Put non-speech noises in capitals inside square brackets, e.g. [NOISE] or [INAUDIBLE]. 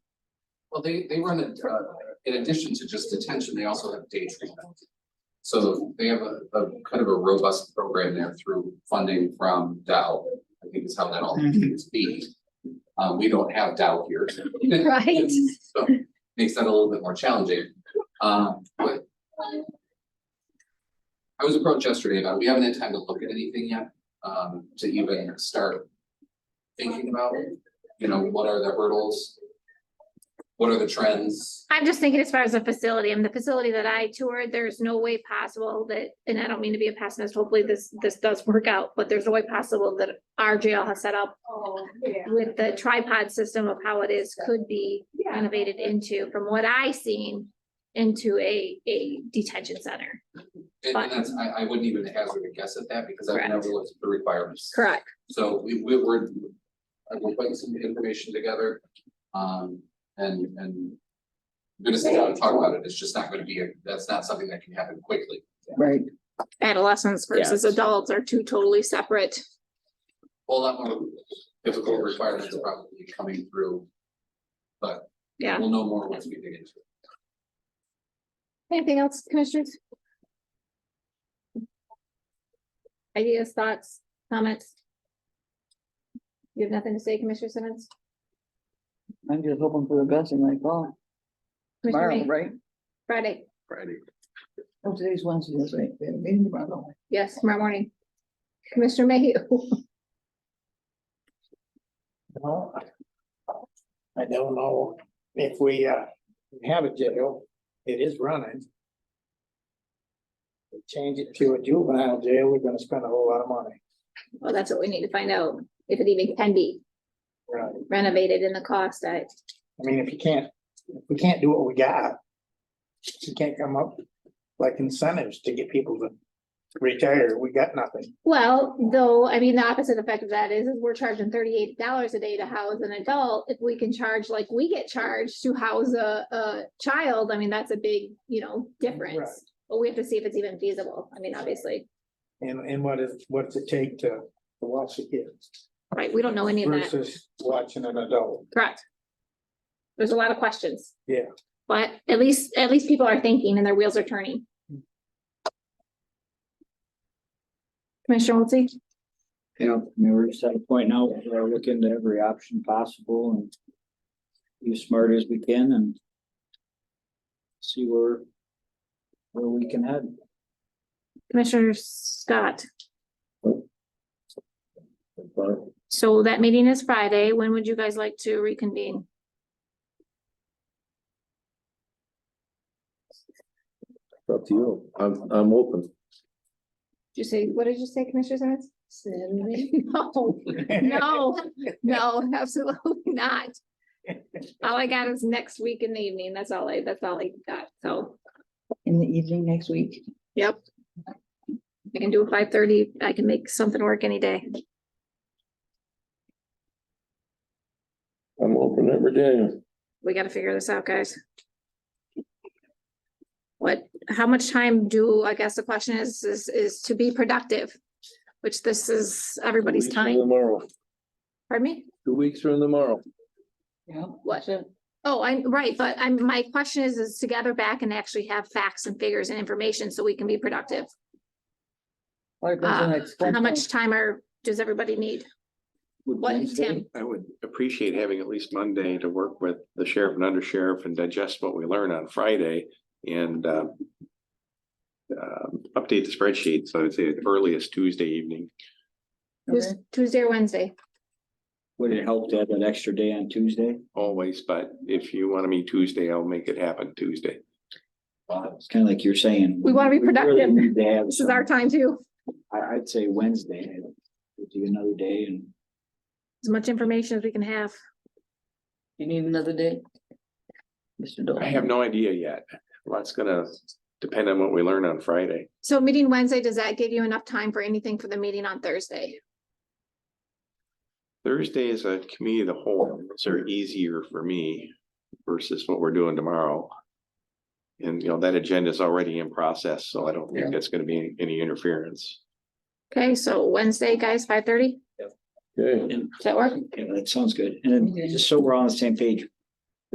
Well, they, they run it, uh, in addition to just detention, they also have day treatment. So they have a, a kind of a robust program there through funding from Dow, I think is how that all is beat. Uh, we don't have Dow here. [LAUGHS] Right. So makes that a little bit more challenging, um, but. I was approached yesterday about, it. we haven't had time to look at anything yet, um, to even start thinking about, you know, what are the hurdles? What are the trends? I'm just thinking as far as the facility, and the facility that I toured, there's no way possible that, and I don't mean to be a pessimist, hopefully this, this does work out, but there's no way possible that our jail has set up with the tripod system of how it is, could be renovated into, from what I seen, into a, a detention center. And Fine. and that's, I, I wouldn't even hazard a guess at that because I've never Correct. looked at the requirements. Correct. So we, we were, I will put some information together, um, and, and. I'm Gonna sit down and talk about it, it's just not gonna be, a- that's not something that can happen quickly. Right, Adolescents versus adults are two totally separate. A lot more difficult requirements are probably coming through. But Yeah. we'll know more once we dig into it. Anything else, commissioners? Ideas, thoughts, comments? You have nothing to say, Commissioner Simmons? I'm just hoping for the best in my call Commissioner tomorrow, May? right? Friday, Friday. Oh, today's Wednesday, that's right. We have a meeting tomorrow. yes, tomorrow morning. Commissioner Mayhew, [LAUGHS] Well, I don't know if we uh have a jail, it is running. We Change it to a juvenile jail, we're gonna spend a whole lot of money. well, that's what we need to find out, if it even can be Right. renovated in the cost, I, I mean, if you can't, if we can't do what we got. You can't come up like incentives to get people to retire, we got nothing. well, though, I mean, the opposite effect of that is, is we're charging thirty-eight dollars a day to house an adult. If we can charge like we get charged to house a, a child, I mean, that's a big, you know, Right. difference. But we have to see if it's even feasible. I mean, obviously, And and what is, what's it take to to watch a kid right? We don't know any of that. versus watching an adult? [LAUGHS] Correct. There's a lot of questions. Yeah. But at least, at least people are thinking and their wheels are turning. Hmm. Commissioner Wiltie? You know, I mean, we're just at a point now, where we're looking to every option possible and be as smart as we can and see where, where we can head. Commissioner Scott? But So that meeting is Friday. When would you guys like to reconvene? Up to you. I'm, I'm open. Did you say, what did you say, Commissioner Simmons? No, no, no, absolutely not. All I got is next week in the evening. That's all I, that's all I got. So In the evening next week. I can do a five thirty. I can make something work any day. I'm open every day. we gotta figure this out, guys. What, how much time do, I guess the question is, is, is to be productive, which this is everybody's Two weeks from time, Tomorrow, pardon me? two weeks from tomorrow. Yeah. What? So Oh, I'm right, but I'm, my question is, is to gather back and actually have facts and figures and information so we can be productive. what happens when Uh, I explain How much things? time are, does everybody need? What, Tim? I would appreciate having at least Monday to work with the sheriff and undersheriff and digest what we learn on Friday and um. um, update the spreadsheet, so I'd say at earliest Tuesday evening. Tues- Tuesday or Wednesday? Would it help to have that extra day on Tuesday? Always, but if you want to meet Tuesday, I'll make it happen Tuesday. It's kind of like you're saying. We wanna be really productive. need to have This is our some- time too. I, I'd say Wednesday, would do another day and As much information as we can have. You need another day? Mr. Dolan. I have no idea yet. Lots gonna depend on what we learn on Friday. So meeting Wednesday, does that give you enough time for anything for the meeting on Thursday? Thursday is a committee of the whole, so are easier for me versus what we're doing tomorrow. And you know, that agenda is already in process, so I don't Yeah. think that's gonna be any- any interference. Okay, so Wednesday, guys, five thirty, Okay. does that work? Yeah, that sounds good. And then just so we're all on the same page,